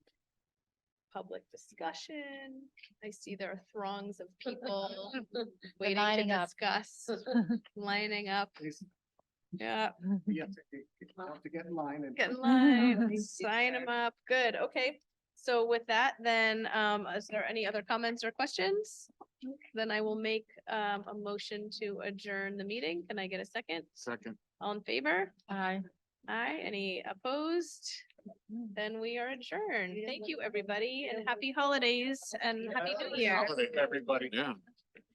public discussion. I see there are throngs of people waiting to lining up. discuss, lining up. Please, Yeah, you have to, you have to get in line and. get in line, Please do sign that. them up. Good, okay. So with that, then, um, is there any other comments or questions? Then I will make, um, a motion to adjourn the meeting. Can I get a second? Second. All in favor? Aye. Aye, any opposed? Then we are adjourned. Thank you, everybody, and happy holidays and happy new year. Holiday, Everybody. Yeah.